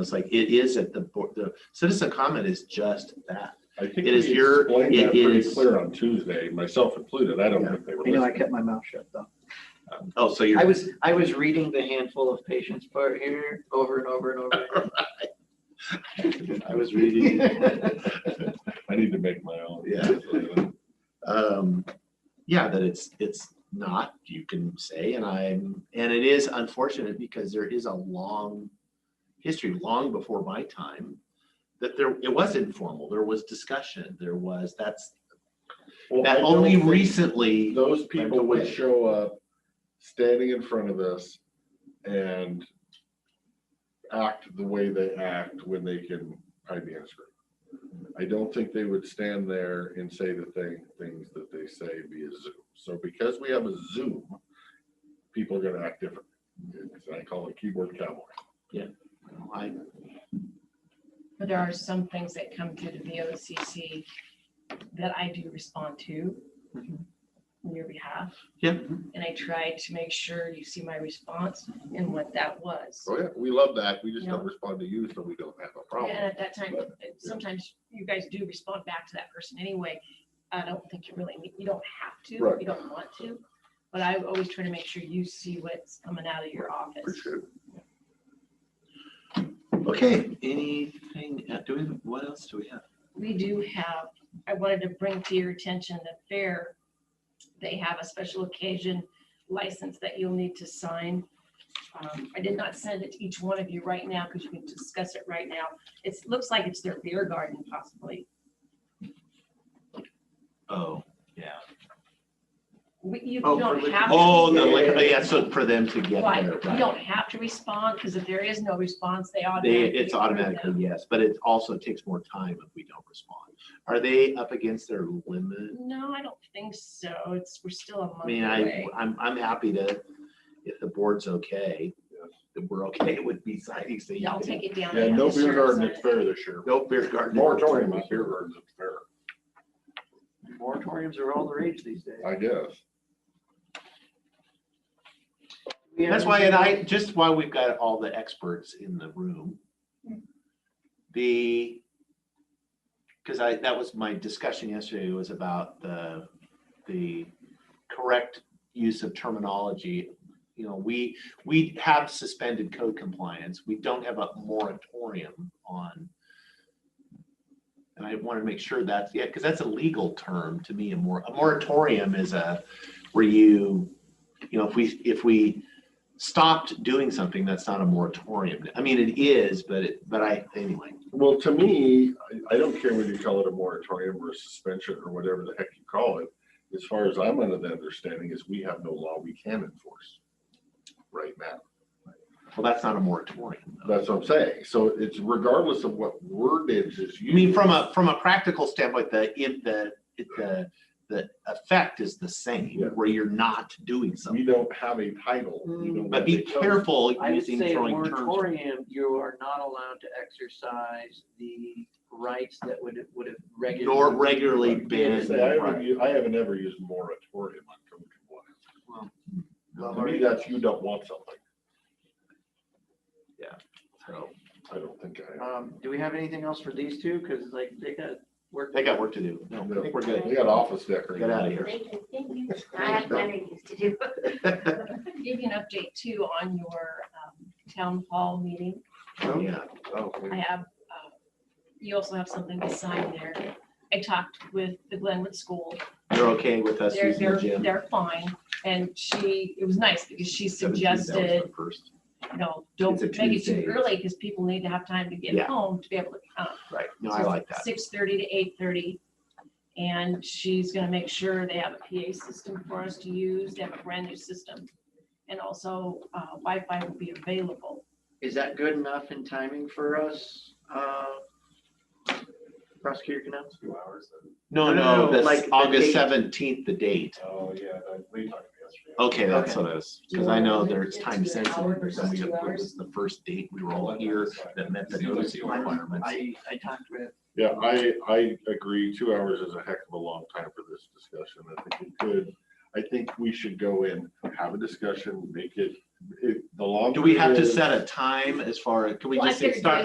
It's like, it is at the, bo- the citizen comment is just that. I think It is we your- explained it that pretty is- clear on Tuesday, myself included. I don't Yeah. think they were You know, I listening. kept my mouth shut though. Oh, so I you're, was, I was reading the handful of patients part here over and over and over. I was reading. again. I need to make my own. Yeah. um, yeah, that it's, it's not, you can say, and I'm, and it is unfortunate because there is a long history, long before my time, that there, it was informal, there was discussion, there was, that's, Well, I that don't only think recently, Those people would away. show up standing in front of us and act the way they act when they can hide the answer. I don't think they would stand there and say the thing, things that they say via Zoom. So because we have a Zoom, people are gonna act different. I call it keyboard cowboy. I, But there are some things that come through the VOCC that I do respond to Mhm. on your behalf. Yeah. And I try to make sure you see my response and what that was. Oh yeah, we love that. We just Yeah. don't respond to you, so we don't have a And problem. at that time, sometimes you guys do respond back to that person anyway. I don't think you really, need- you don't have to, Right. you don't want to. But I always try to make sure you see what's coming out of your office. Appreciate it. okay, anything, uh, do we, what else do we have? we do have, I wanted to bring to your attention that fair, they have a special occasion license that you'll need to sign. Um, I did not send it to each one of you right now because you can discuss it right now. It looks like it's their beer garden possibly. Oh, yeah. We- You you Oh, for don't liquor- have. to- Oh, the liquor- yeah, so for them to get Right, there. you don't have to respond because if there is no response, they They, automatically. it's approve automatically, them. yes, but it also takes more time if we don't respond. Are they up against their limit? No, I don't think so. It's, we're still a month I mean, I, away. I'm, I'm happy to, if the board's okay, if we're okay with be signing, so. Yeah, I'll take it down. Yeah, and no have the beer sheriff garden sign at it. fair this year. No beer garden. Moratorium on beer gardens at fair, Moratoriums are all the rage these days. I guess. We have- That's why, and I, just why we've got all the experts in the room. Hmm. The, because I, that was my discussion yesterday was about the, the correct use of terminology. You know, we, we have suspended code compliance. We don't have a moratorium on. And I want to make sure that's, yeah, because that's a legal term to me. A mor, a moratorium is a, where you, you know, if we, if we stopped doing something, that's not a moratorium. I mean, it is, but it, but I, anyway. Well, to me, I, I don't care whether you call it a moratorium or a suspension or whatever the heck you call it. As far as I'm under the understanding is we have no law we can enforce right now. Well, that's not a moratorium. though. That's what I'm saying. So it's regardless of what wordage is I used. mean, from a, from a practical standpoint, the, in the, it- the, the effect is the same, Yeah. where you're not doing We something. don't have a title. we don't But have be a code. careful I would using say a throwing terms. moratorium, you are not allowed to exercise the rights that would, would have regulated. Nor regularly banned. Say, I haven't, u- I haven't ever used moratorium on code compliance. To me, that's you don't want something. So, I don't think I. Um, do we have anything else for these two? Cause like they got work. They got work to do. No, I think we're good. We got office decorating. Get out of here. Thank you, thank you. I have better things to do. Give you an update too on your um, town hall meeting. Yeah. Oh, we- I have, uh, you also have something to sign there. I talked with the Glenwood School. They're okay with us They're, using the they're, gym. they're fine. And she, it was nice because she 17,000 suggested, First, you know, It's don't a make it too Tuesday. early because people need to have time to get Yeah. home to be able to come. right. No, I like that. Six thirty to eight thirty. And she's gonna make sure they have a PA system for us to use. They have a brand new system. And also uh, Wi-Fi will be available. Is that good enough in timing for us? uh, Prosecutor Canales? two hours. then. No, No, no, no, that's like the August date. seventeenth, the date. Oh, yeah, that- we talked yesterday. Okay, that's Okay. what I was, because I know there's It's time an hour sensitive, versus and we, two it hours. was the first date we were all here that met the notice requirements. I, I talked with, Yeah, I, I agree. Two hours is a heck of a long time for this discussion. I think it could, I think we should go in, have a discussion, make it, it, the longer. Do we have it to is- set a time as far, as can we Well, I just say figured start,